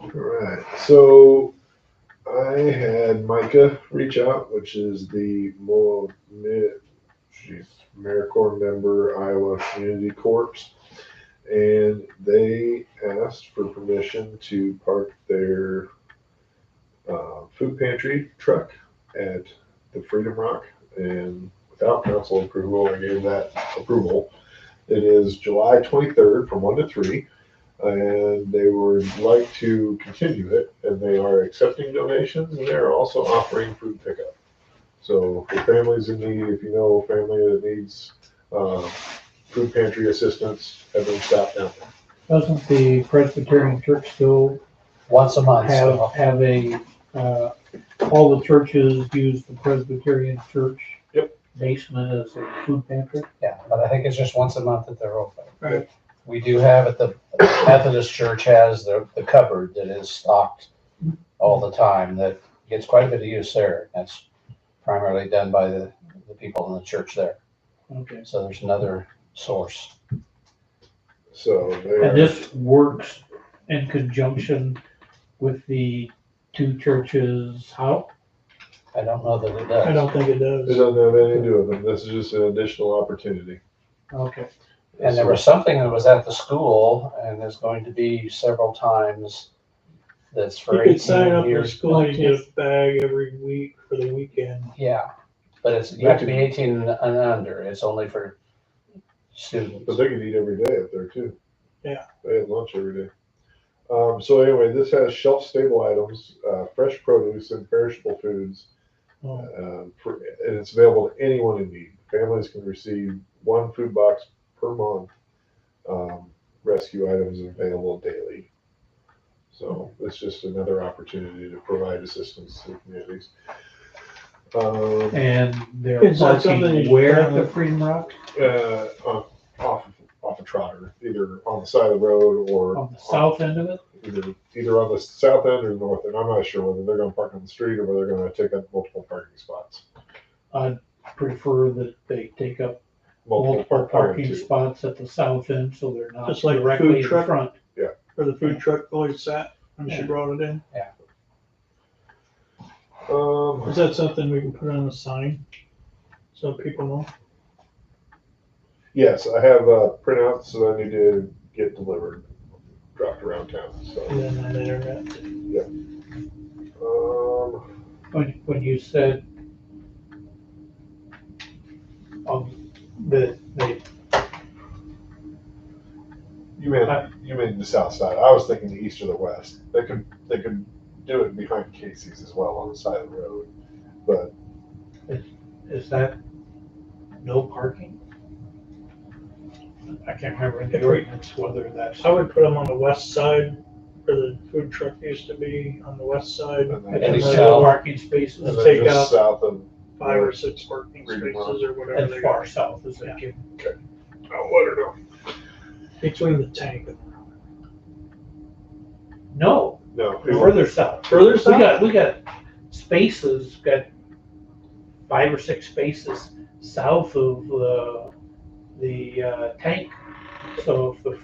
All right. So I had Micah reach out, which is the Mo- Mi- she's AmeriCorps member, Iowa Community Corps, and they asked for permission to park their uh, food pantry truck at the Freedom Rock. And without council approval, I gave that approval. It is July 23rd from 1 to 3 and they would like to continue it, and they are accepting donations, and they're also offering food pickup. So for families in need, if you know a family that needs, uh, food pantry assistance, have them stop down there. Doesn't the Presbyterian Church still once a month. have, so- have a, uh, all the churches use the Presbyterian Church? Yep. Basement as a food pantry? Yeah, but I think it's just once a month that they're open. Right. We do have at the Methodist Church has the, the cupboard that is stocked all the time that gets quite a bit of use there. That's primarily done by the, the people in the church there. Okay. So there's another source. So And they're, this works in conjunction with the two churches, how? I don't know that it I does. don't think it it does. doesn't have anything to do with them, this is just an additional opportunity. Okay, And there was something that was at the school and there's going to be several times that's You for could sign eighteen up for years. school, you get a bag every week for the weekend. Yeah, but it's, you have to be eighteen and and under. It's only for students. But they could eat every day up there too. Yeah. They had lunch every day. Um, so anyway, this has shelf stable items, uh, fresh produce and perishable foods. Oh. Um, for, and it's available to anyone in need. Families can receive one food box per month. Um, rescue items available daily. So it's just another opportunity to provide assistance to communities. Um, and they're Is that something parking you- where at the Freedom Rock? uh, off, off off a trotter, either on the side of the road or On the south end of it? either either on the south end or north end. I'm not sure whether they're going to park on the street or whether they're going to take up multiple parking spots. I'd prefer that they take up multiple park- parking too. spots at the south end, so they're not Just like food directly in truck? front. Where the food truck always sat when she Yeah. brought it in. Is Um, that something we can put on a sign? So people know? yes, I have uh, printouts that I need to get delivered, dropped around town. So, And then on the internet. um, When, when you said um, that they, you mean I- you mean the south side? I was thinking the east or the west. They could they could do it behind Casey's as well on the side of the road, but is that no parking? I can't remember in If the we- ordinance whether that's, I would put them on the west side where the food truck used to be, on the west side. and then, if think there's and so. no parking then spaces Take just out- south of Five or six parking Read them spaces or whatever as they are. far south as they can. oh, Lauderdale. Between the tank. and- No, No, it was- further south. Further We south? got, we got spaces, got five or six spaces south of the, the uh, tank. So if the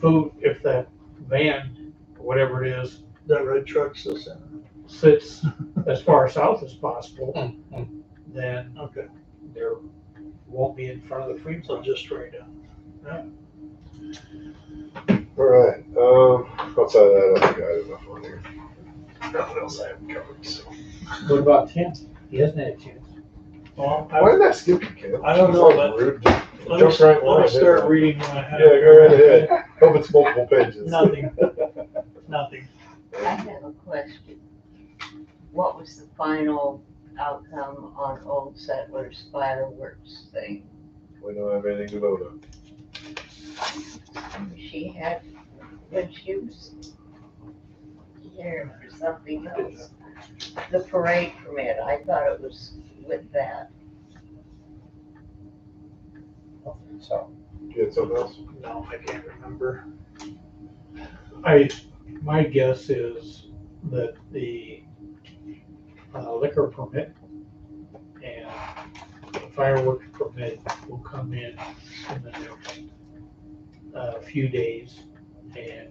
food, if that van, whatever it is, That red truck's the center. sits as far south as possible, Mm, mm. hmm. then Okay, there won't be in front of the free so zone. just right down. All right. Um, outside of that, I think I had enough on here. Nothing else I haven't covered. So. What about Tim? He hasn't had a chance. Well, I- Why did I skip you, Ken? I don't It's know, like but- rude. Let Jump me, right in let line, me didn't I? start reading what I Yeah, have. go right ahead. Hope it's multiple pages. Nothing, nothing. I have a question. What was the final outcome on Old Settlers fireworks thing? We don't have anything to vote on. She had, when she was here for something else, the parade permit, I thought it was with that. So, You had something else? No, I can't remember. I, my guess is that the uh, liquor permit and the fireworks permit will come in in the next uh, few days. And